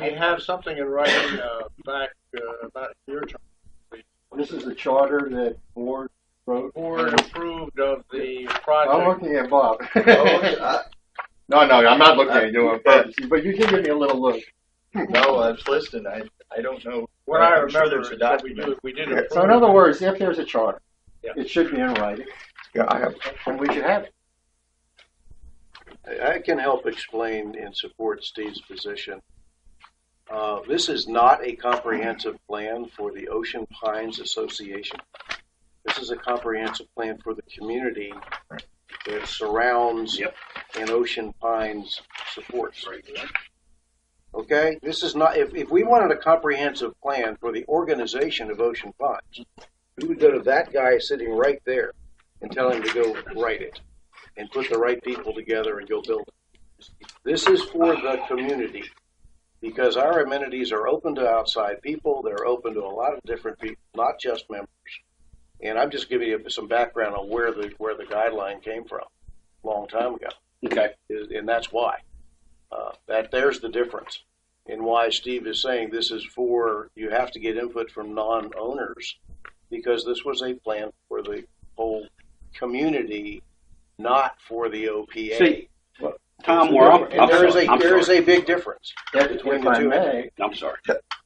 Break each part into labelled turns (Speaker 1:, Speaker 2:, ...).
Speaker 1: I have something in writing uh, back uh, about your term.
Speaker 2: This is the charter that board wrote.
Speaker 1: Board approved of the
Speaker 2: I'm
Speaker 1: project.
Speaker 2: looking at Bob.
Speaker 3: I,
Speaker 2: No, no, I'm not looking at you on purpose, but you can give me a little look.
Speaker 3: Uh, no, I was listening. I, I don't know.
Speaker 1: What I
Speaker 3: I'm sure
Speaker 1: remember
Speaker 3: there's
Speaker 1: is
Speaker 3: a
Speaker 1: that we
Speaker 3: document.
Speaker 1: do, we did
Speaker 2: So in
Speaker 1: approve.
Speaker 2: other words, if there's a charter,
Speaker 1: Yeah.
Speaker 2: it should be in writing,
Speaker 4: Yeah, I have.
Speaker 2: and we should have it.
Speaker 5: I I can help explain and support Steve's position. Uh, this is not a comprehensive plan for the Ocean Pines Association. This is a comprehensive plan for the community that surrounds and Ocean Pines supports. Okay, this is not, if, if we wanted a comprehensive plan for the organization of Ocean Pines, we would go to that guy sitting right there and tell him to go write it and put the right people together and go build it. This is for the community because our amenities are open to outside people. They're open to a lot of different people, not just members. And I'm just giving you some background on where the where the guideline came from, a long time ago.
Speaker 2: Okay.
Speaker 5: Is- and that's why. Uh, that there's the difference, and why Steve is saying this is for you have to get input from non-owners, because this was a plan for the whole community, not for the OPA.
Speaker 6: See, Tom, where I'm,
Speaker 5: and
Speaker 6: I'm
Speaker 5: there is
Speaker 6: sorry,
Speaker 5: a
Speaker 6: I'm
Speaker 5: there is
Speaker 6: sorry,
Speaker 5: a big difference.
Speaker 2: If if I may,
Speaker 6: I'm sorry.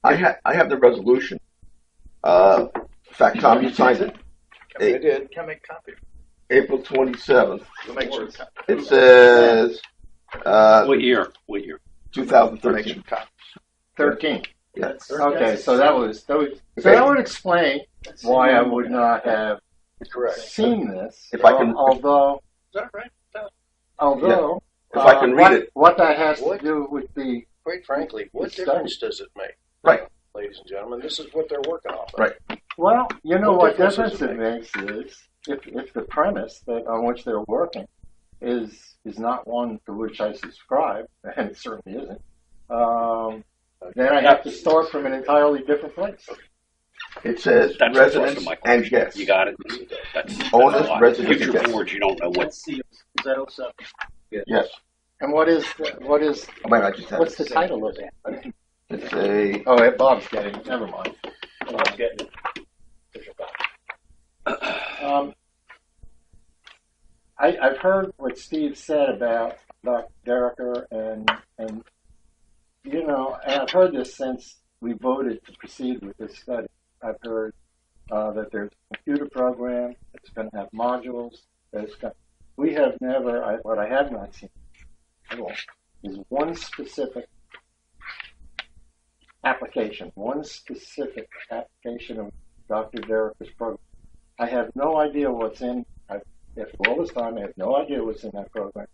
Speaker 4: I have. I have the resolution. Uh, in fact, Tom, you signed it
Speaker 5: I did.
Speaker 3: Can I make copy?
Speaker 4: April twenty seventh.
Speaker 3: We'll make sure. copy.
Speaker 4: It says uh,
Speaker 6: What year? What year?
Speaker 4: two thousand
Speaker 3: We'll make sure
Speaker 4: thirteen.
Speaker 3: copy.
Speaker 2: thirteen.
Speaker 4: Yes.
Speaker 2: Okay, so that was, that was, so that would explain why I would not have
Speaker 3: Correct.
Speaker 2: seen this.
Speaker 4: If I can-
Speaker 2: Although,
Speaker 1: Is that right?
Speaker 2: although.
Speaker 4: If I can
Speaker 2: uh,
Speaker 4: read
Speaker 2: what-
Speaker 4: it.
Speaker 2: What that has to
Speaker 5: What?
Speaker 2: do with the
Speaker 5: Quite frankly, what
Speaker 2: It's done.
Speaker 5: difference does it make?
Speaker 4: Right.
Speaker 5: ladies and gentlemen, this is what they're working off. of.
Speaker 4: Right.
Speaker 2: Well, you know what
Speaker 5: What
Speaker 2: difference
Speaker 5: difference
Speaker 2: it makes is if, if the premise that on which they're working is is not one to which I subscribe, and it certainly isn't, um, then I have to start from an entirely different place.
Speaker 4: It says
Speaker 6: That's the thrust of
Speaker 4: residents
Speaker 6: my question.
Speaker 4: and guests.
Speaker 6: You got it. That's, that's
Speaker 4: Owners,
Speaker 6: a lot.
Speaker 4: residents,
Speaker 6: Future
Speaker 4: yes.
Speaker 6: boards, you don't know what.
Speaker 4: Yes.
Speaker 2: And what is the, what is
Speaker 4: I might not just have
Speaker 2: what's
Speaker 4: it.
Speaker 2: the title of that?
Speaker 4: It's a.
Speaker 2: Oh, yeah, Bob's getting it. Never mind. Um, I, I've heard what Steve said about Doc Dereker and and you know, and I've heard this since we voted to proceed with this study. I've heard uh, that there's a computer program that's going to have modules. That's going we have never. I, what I have not seen at all is one specific application, one specific application of Dr. Derek's program. I have no idea what's in, I, after all this time, I have no idea what's in that program.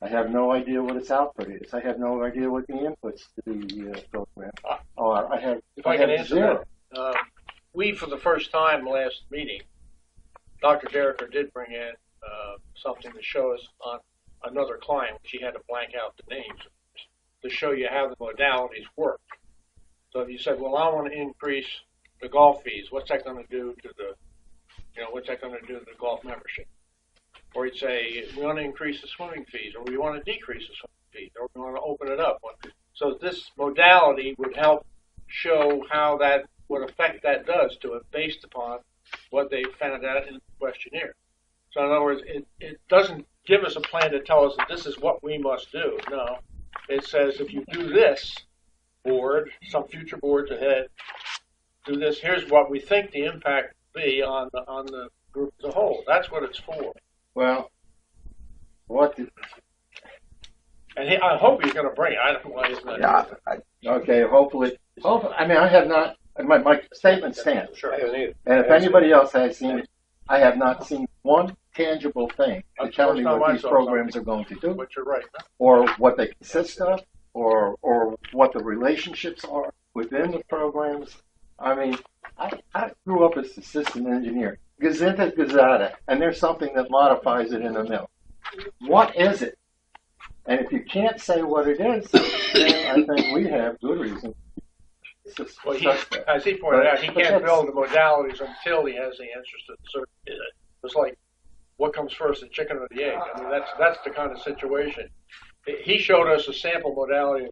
Speaker 2: I have no idea what its output is. I have no idea what the inputs to the uh, program are. I have,
Speaker 1: If I can
Speaker 2: have
Speaker 1: answer
Speaker 2: zero.
Speaker 1: that, uh, we, for the first time last meeting, Dr. Dereker did bring in, uh, something to show us on another client. She had to blank out the names to show you how the modalities work. So if you said, well, I want to increase the golf fees, what's that going to do to the, you know, what's that going to do to the golf membership? Or you'd say, we want to increase the swimming fees, or we want to decrease the swimming fees, or we want to open it up. So this modality would help show how that, what effect that does to it based upon what they found out in the questionnaire. So in other words, it, it doesn't give us a plan to tell us that this is what we must do. No, it says if you do this board, some future boards ahead, do this. Here's what we think the impact will be on the on the group as a whole. That's what it's for.
Speaker 2: Well, what did,
Speaker 1: And he, I hope he's going to bring it. I don't know why he's not.
Speaker 4: Yeah, I,
Speaker 2: okay, hopefully, hopefully, I mean, I have not, my, my statement stands.
Speaker 1: Sure.
Speaker 5: I haven't either.
Speaker 2: And if anybody else has seen, I have not seen one tangible thing to
Speaker 1: That's
Speaker 2: tell
Speaker 1: the
Speaker 2: me
Speaker 1: first time
Speaker 2: what
Speaker 1: I
Speaker 2: these
Speaker 1: saw
Speaker 2: programs are going to do,
Speaker 1: But you're right.
Speaker 2: or what they consist of, or, or what the relationships are within the programs. I mean, I, I grew up as a system engineer. Gazinta gazada, and there's something that modifies it in the middle. What is it? And if you can't say what it is, then I think we have good reason. to sus-
Speaker 1: Well, he,
Speaker 2: suspect.
Speaker 1: as he pointed out, he
Speaker 2: But
Speaker 1: can't
Speaker 2: that's-
Speaker 1: build the modalities until he has the answers to the certain. It's like, what comes first, the chicken or the egg? I mean, that's that's the kind of situation. He- He showed us a sample modality of